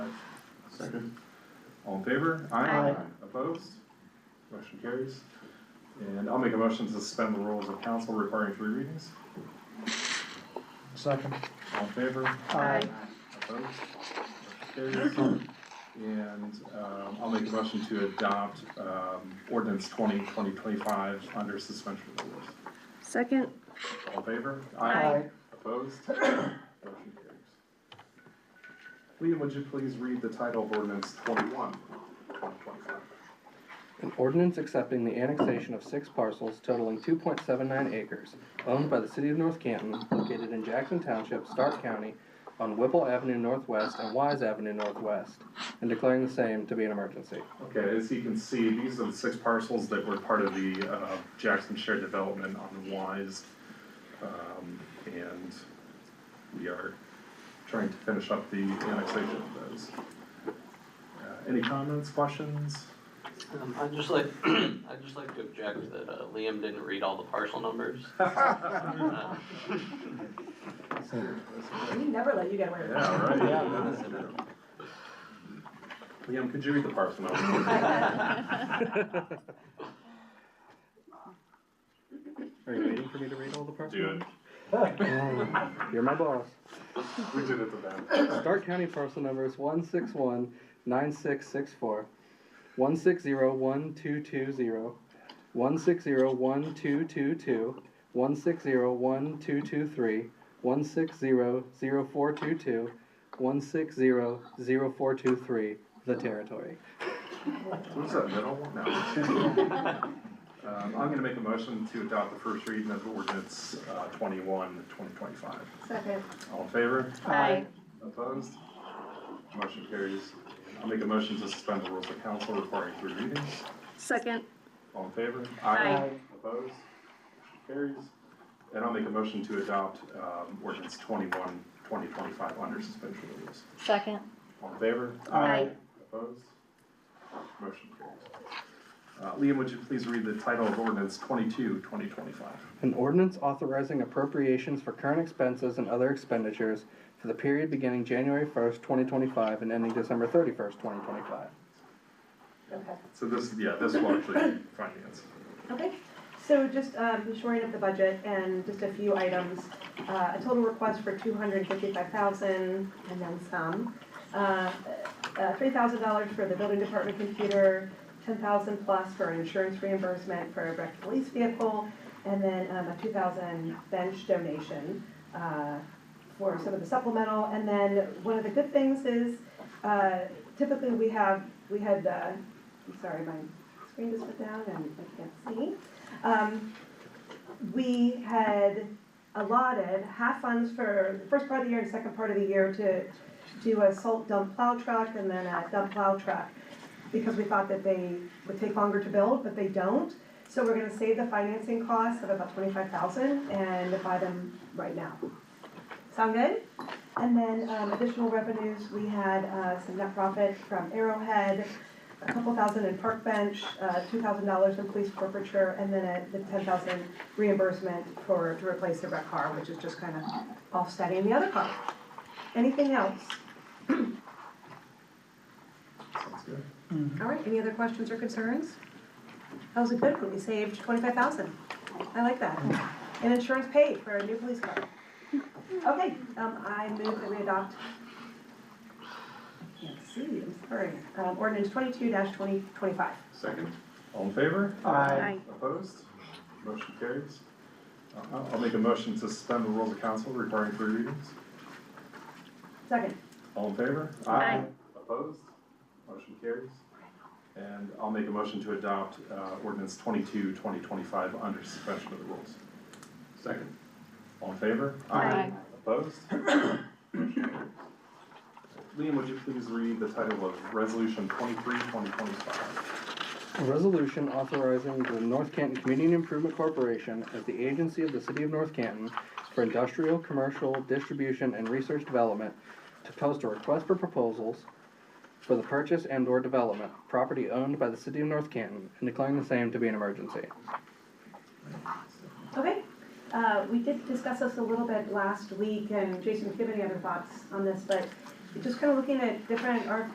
Second. All in favor? Aye. Opposed? Motion carries. And I'll make a motion to suspend the rules of council requiring three readings. Second. All in favor? Aye. Opposed? Motion carries. And um, I'll make a motion to adopt um, ordinance 20, 2025 under suspension of the rules. Second. All in favor? Aye. Opposed? Motion carries. Liam, would you please read the title of ordinance 21, 2025? An ordinance accepting the annexation of six parcels totaling two point seven nine acres owned by the city of North Canton located in Jackson Township, Stark County, on Whipple Avenue Northwest and Wise Avenue Northwest, and declaring the same to be an emergency. Okay, as you can see, these are the six parcels that were part of the uh, Jackson Shared Development on Wise. Um, And we are trying to finish up the annexation of those. Uh, Any comments, questions? Um, I'd just like, I'd just like to object that uh, Liam didn't read all the parcel numbers. Uh, We never let you get away with that. Yeah, right. Liam, could you read the parcel Uh, number? Are you waiting for me to read all the parcels? Do it. You're my boss. We did it to them. Stark County parcel numbers one six one nine six six four, one six zero one two two zero, one six zero one two two two, one six zero one two two three, one six zero zero four two two, one six zero zero four two three, the territory. What's that middle one? No. Um, I'm gonna make a motion to adopt the first reading of ordinance, uh, 21, 2025. Second. All in favor? Aye. Opposed? Motion carries. I'll make a motion to suspend the rules of council requiring three readings. Second. All in favor? Aye. Opposed? Motion Carries. And I'll make a motion to adopt, um, ordinance 21, 2025 under suspension of the rules. Second. All in favor? Aye. Opposed? Motion carries. Uh, Liam, would you please read the title of ordinance 22, 2025? An ordinance authorizing appropriations for current expenses and other expenditures for the period beginning January first, twenty twenty-five and ending December thirty-first, twenty twenty-five. Okay. So this, yeah, this will actually be finance. Okay, so just um, shoring up the budget and just a few items. Uh, A total request for two hundred and fifty-five thousand and then some. Uh, Three thousand dollars for the building department computer, ten thousand plus for insurance reimbursement for a wrecked police vehicle, and then um, a two thousand bench donation uh, for some of the supplemental. And then one of the good things is uh, typically we have, we had, uh, I'm sorry, my screen just went down and I can't see. Um, we had allotted half funds for the first part of the year and second part of the year to do a salt dump plow truck and then a dump plow truck. Because we thought that they would take longer to build, but they don't. So we're gonna save the financing costs of about twenty-five thousand and buy them right now. Sound good? And then, um, additional revenues, we had, uh, some net profit from Arrowhead, a couple thousand in park bench, uh, two thousand dollars in police forfeiture, and then a, the ten thousand reimbursement for, to replace the wrecked car, which is just kind of offsetting the other car. Anything else? Sounds good. All right, any other questions or concerns? That was a good one, we saved twenty-five thousand. I like that. And insurance paid for a new police car. Okay, um, I move that we adopt. I Can't see, I'm sorry. Um, ordinance twenty-two twenty twenty-five. Second. All in favor? Aye. Opposed? Motion carries. Uh, I'll I'll make a motion to suspend the rules of council requiring three readings. Second. All in favor? Aye. Opposed? Motion carries. And I'll make a motion to adopt uh, ordinance 22, 2025 under suspension of the rules. Second. All in favor? Aye. Opposed? Liam, would you please read the title of resolution 23, 2025? A resolution authorizing the North Canton Community Improvement Corporation as the agency of the City of North Canton for industrial, commercial, distribution, and research development to post a request for proposals for the purchase and/or development of property owned by the City of North Canton and declaring the same to be an emergency. Okay, uh, we did discuss this a little bit last week, and Jason, if you have any other thoughts on this, but just kind of looking at different RFPs